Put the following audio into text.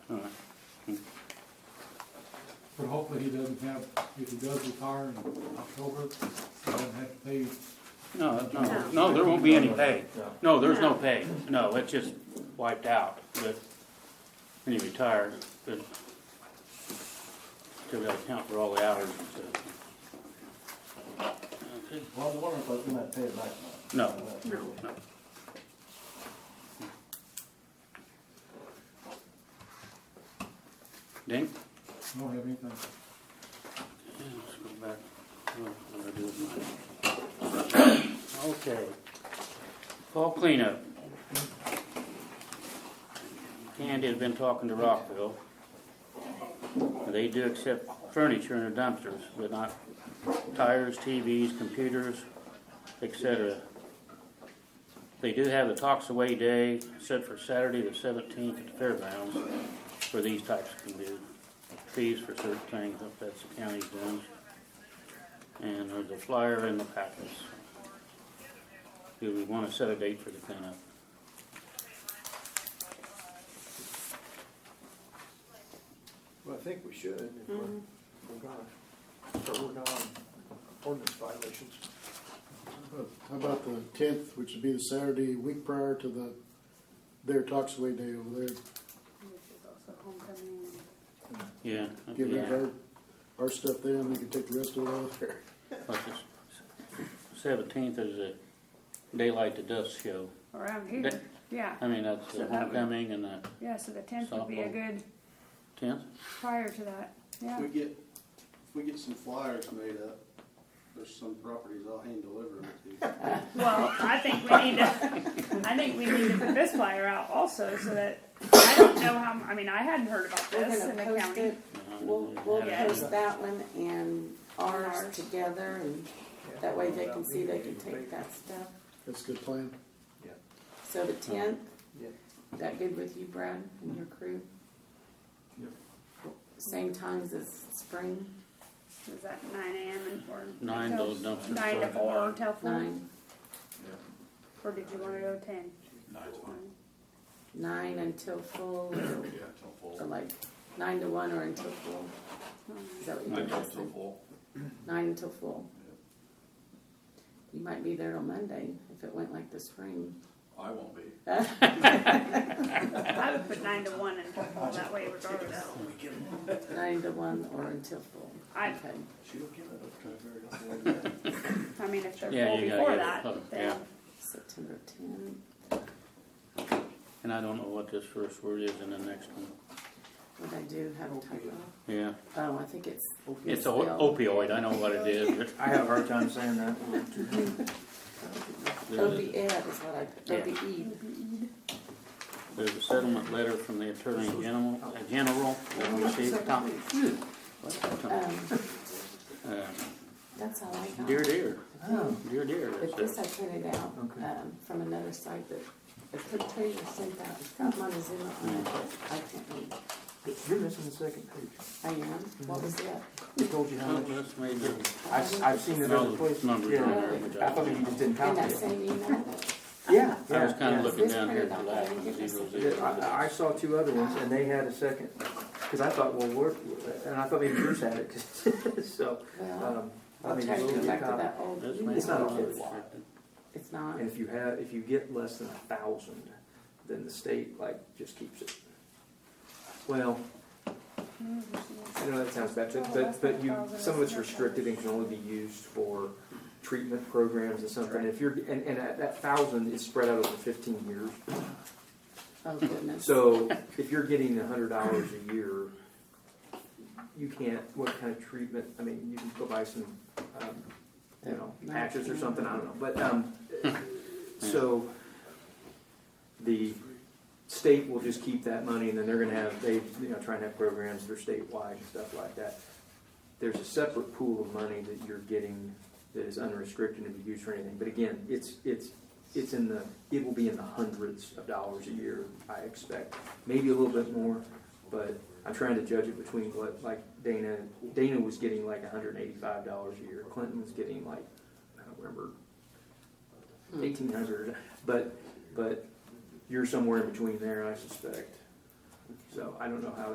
but hopefully he doesn't have, if he does retire in October, he doesn't have to pay. No, no, no, there won't be any pay. No, there's no pay. No, it's just wiped out, but when you retire, but still gotta count for all the hours and stuff. Okay. Well, I was wondering if I was gonna pay it back. No, No. no. Dink? I don't have anything. Yeah, let's go back. Well, I'm gonna do it mine. Okay. Call cleanup. Candy has been talking to Rockville. They do accept furniture in the dumpsters, but not tires, TVs, computers, etc. They do have the Talks Away Day set for Saturday the seventeenth at the fairgrounds for these types of commu- fees for certain things, if that's the county's doing. And there's a flyer in the packets. Do we wanna set a date for the cleanup? Well, I think we should, if we're, Mm-hmm. we're gonna, so we're gonna, ordinance violations. How about the tenth, which would be the Saturday week prior to the, their Talks Away Day over there? Yeah, Give yeah. them our, our stuff there, and we can take the rest of it out there. Seventeenth is a daylight to dusk show. Around here, That- yeah, I mean, that's So the that would- homecoming and the yeah, so the tenth would be a Softball. good tenth. prior to that, yeah. If we get, if we get some flyers made up, there's some properties I'll hand deliver them to. Well, I think we need to, I think we need to put this flyer out also, so that, I don't know how, I mean, I hadn't heard about We're this in the gonna post county. it, we'll, we'll Yeah. post that one and ours together, and that way they can see they can take that stuff. That's a good plan. So the tenth, Yeah. is that good with you, Brad, and your crew? Yep. Same times as spring, Is that nine AM and four? Nine, till- those dumpsters. Nine to start. four till four, nine, or did you wanna go ten? nine until full, or- or like nine to one or until full? Is that what you did last time? Nine until full. You might be there till Monday, if it went like the spring. I won't be. I would put nine to one and till four, that way regardless. Nine to one or until full. I, Okay. She'll give it up to very often. I mean, if they're Yeah, full you gotta get before it that, covered, then, September tenth. And I don't know what this first word is in the next one. What I do have a typo. Yeah, Oh, I think it's. it's a opioid, I know what it is, but I have a hard time saying that. there's a- OBE is what I, E. Yeah. OBE. There's a settlement letter from the Attorney General, uh, General, that we received, Tom. Um, Um, Uh, that's all I got. Dear, dear, dear, dear, But that's this I it. printed out, um, from another site that, the picture sent out, it's got Montezuma on it, but I can't read. You're missing the second page. I am, what was that? We told you how Oh, much. that's made the- I've, I've seen it other No, places. numbers Yeah. on there, which I- I thought you just didn't In count that it. same email? Yeah, I was yeah, kinda yeah. looking down here at the last one, zero, Yeah, zero. I, I saw two other ones and they had a second, cause I thought, well, we're, and I thought maybe Bruce had it, 'cause- so, Well, um. I Oh. I'll mean, try to it's go a back to copy. that old That's email. made It's not a the- whole lot. It's not, And if you have, if you get less than a thousand, then the state like just keeps it. Well, I know that sounds bad, but, but, but you, some of it's restricted and can only be used for treatment programs and something. If you're, and, and that, that thousand is spread out over fifteen years. oh goodness. So if you're getting a hundred dollars a year, you can't, what kind of treatment, I mean, you can go buy some, um, you know, patches or something, I don't know, but, um, so the state will just keep that money and then they're gonna have, they, you know, try and have programs that are statewide and stuff like that. There's a separate pool of money that you're getting that is unrestricted and be used for anything, but again, it's, it's, it's in the, it will be in the hundreds of dollars a year, I expect, maybe a little bit more, but I'm trying to judge it between what, like Dana, Dana was getting like hundred and eighty-five dollars a year, Clinton was getting like, I don't remember, eighteen hundred, but, but you're somewhere in between there, I suspect. So I don't know how